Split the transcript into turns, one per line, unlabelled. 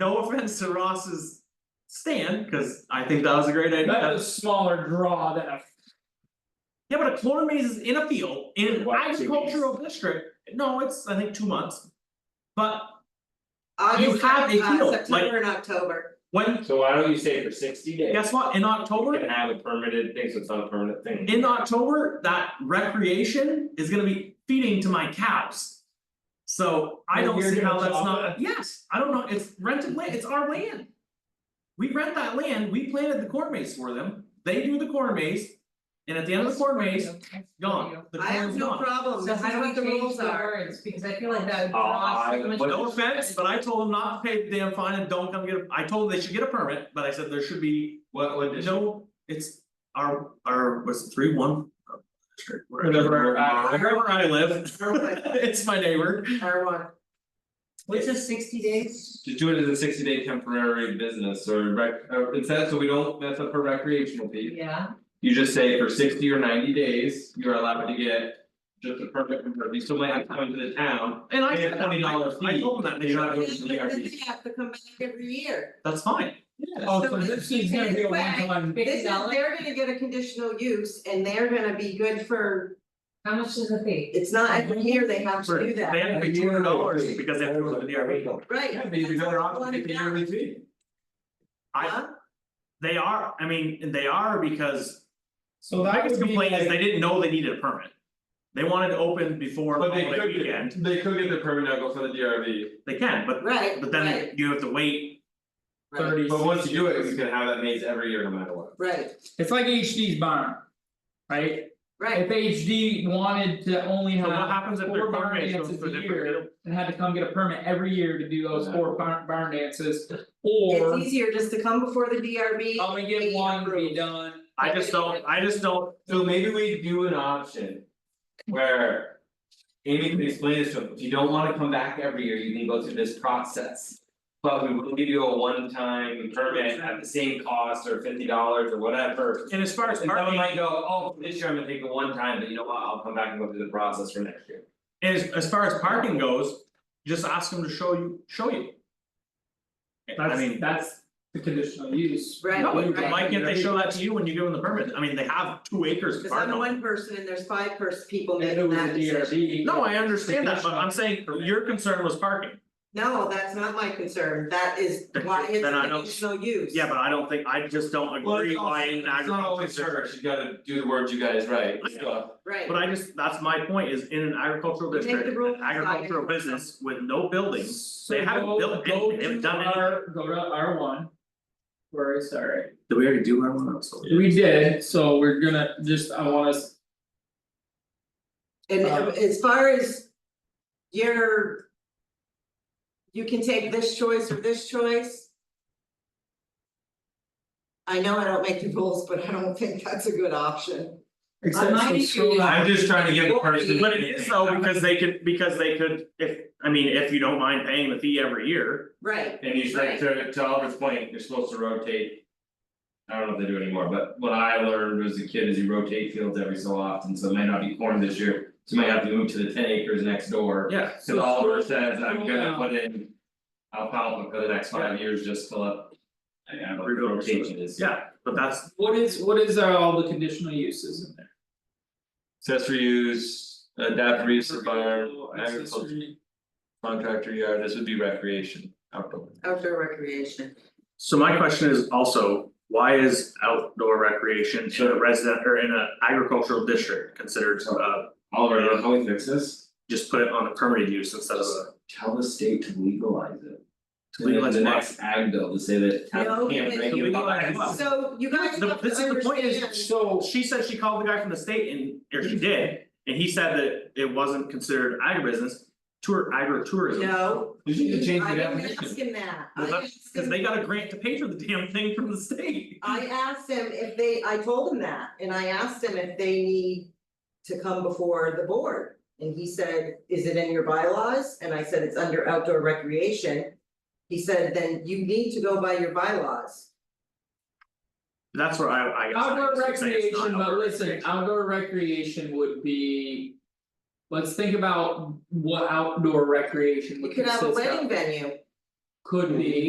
no offense to Ross's stand, cause I think that was a great idea.
That was a smaller draw than a
Yeah, but a corn maze is in a field, in an
What, two weeks?
agricultural district, no, it's, I think, two months. But
August,
have a
uh,
deal, like-
September and October,
when,
So why don't you say for sixty days?
guess what, in
You
October,
can have a permitted thing, so it's not a permanent thing.
in October, that recreation is gonna be feeding to my cows. So I
Well,
don't
you're
see how
gonna
that's
chop
not,
it?
yes, I don't know, it's rented land, it's our land. We rent that land, we planted the corn maze for them, they do the corn maze. And at the end of the corn maze, gone, the
I
corn
have
is
no
gone.
problem,
So
this is
how do
what the
we change
rules
the
are.
words, because I feel like that would
Uh,
draw
I
so much.
would-
No offense, but I told them not to pay the damn fine and don't come get, a. I told them they should get a permit, but I said there should be
What what is?
no, it's our, our, what's it, three one? uh, district, Wherever,
Whatever, uh,
wherever I live,
Perfect.
it's my neighbor,
R one,
Which is sixty days?
To do it as a sixty day temporary business or rec, uh instead, so we don't mess up her recreational fee.
Yeah,
You just say for sixty or ninety days, you're allowed to get. Just a permit from her, you still might have to come to the town,
and I
Pay a
said,
$20
I told them that, and they
fee.
should have
and
it.
Those are the
then
DRBs.
they have to come back every year.
that's fine,
Oh, so this is gonna be a one time.
This
fifty
is,
dollars,
they're gonna get a conditional use and they're gonna be good for,
how much is the fee?
it's not every year they have to do
they
that,
have to pay two hundred dollars because they have to go to the DRB.
right?
yeah, maybe
That's
better
what
off
I
to pay the
wanna know.
yearly fee.
I,
Huh?
they are, I mean, they are because
So
the
that
biggest
would be
complaint is they
like,
didn't know they needed a permit. They wanted to open before the
But they
holiday
could
weekend,
get, they could get the permit and go for the DRV,
they can, but
Right,
but
right,
then you have to wait
right,
thirty,
but once you do it, you can have that maze every year no matter what.
right,
it's like HD's barn. Right,
right,
if HD wanted to only
So what
have
happens if
four
their car
barn
makes goes
dances
for
a
different,
year and had to come get a permit every year to do those four barn barn dances. Or
it's easier just to come before the DRB.
I'm gonna get
be
one, be
approved.
done.
I just don't, I just don't,
So maybe we do an option. Where. Amy can explain this to him, if you don't wanna come back every year, you can go through this process. But we will give you a one-time permit at the same cost or fifty dollars or whatever.
and as far as
And someone
parking,
might go, oh, this year I'm gonna take it one time, but you know what, I'll come back and go through the process for next year.
and as as far as parking goes, just ask them to show you, show you. I
That's-
mean,
That's the conditional use.
Right,
no,
right.
but why can't they show that to you when you give them the permit, I mean, they have two acres of
Cause
farm.
I'm
land.
one person and there's five person people
If it
making
was a
that decision.
DRB.
No, I understand that, but I'm saying
Conditional.
your concern was parking,
No, that's not my concern, that is why it's
Then I don't-
conditional use.
yeah, but I don't think, I just don't agree why in agriculture.
It's not always her, she gotta do the words you guys write,
I
so.
Right,
But I just, that's my point, is in an agricultural
You make the
district,
rules,
an
it's not
agricultural
agriculture.
business with no buildings,
So
They haven't
go-
built anything, they haven't done anything.
Go to R, go to R one. Where is that right?
Did we already do our one, I'm sorry.
We did, so we're gonna just, I want us,
and um,
uh,
as far as. Your. You can take this choice or this choice. I know I don't make the rules, but I don't think that's a good option.
except
might
so
issue
scroll
is-
down.
I'm just trying to give the person.
But it is though, because they could, because they could, if, I mean, if you don't mind paying the fee every year.
Right,
And you said to to Albert's point, you're supposed to rotate. I don't know if they do anymore, but what I learned as a kid is you rotate fields every so often, so it might not be corn this year, so you might have to move to the ten acres next door.
Yeah.
Cause Oliver says, I'm
scroll
gonna
down.
put in. Alfalfa for the next five years just till up. I don't know what
Rebuild.
rotation is.
Yeah, but that's,
What is, what is uh, all the conditional uses in there?
Accessory use, adaptive use of barn,
Commercial,
agriculture,
accessory.
contractor yard, this would be recreation, outdoor.
outdoor recreation,
so my question is also, why is outdoor recreation in a resident or in a agricultural district considered uh?
Oliver, I don't know how we fix this.
Just put it on a permitted use instead of a,
tell the state to legalize it.
To legalize
And
what?
then the next ag bill to say that
No,
town can't
it's-
regulate.
To legalize what?
so you guys
The-
have to
this is the point is-
understand,
So,
Oh, she said she called the guy from the state and, or she did, and he said that it wasn't considered agribusiness. Tour, agritourism.
no,
You should change
I
the
didn't
definition.
ask him that, I
Well, that's
asked
Cause
him-
they got a grant to pay for the damn thing from the state.
I asked him if they, I told him that, and I asked him if they need to come before the board. And he said, is it in your bylaws? And I said, it's under outdoor recreation. He said, then you need to go by your bylaws.
That's where I I guess I
outdoor
would say it's not
recreation, but
outdoor
listen,
recreation.
outdoor recreation would be. Let's think about what outdoor recreation
You
would
could
consist
have a wedding
of.
venue.
Could be.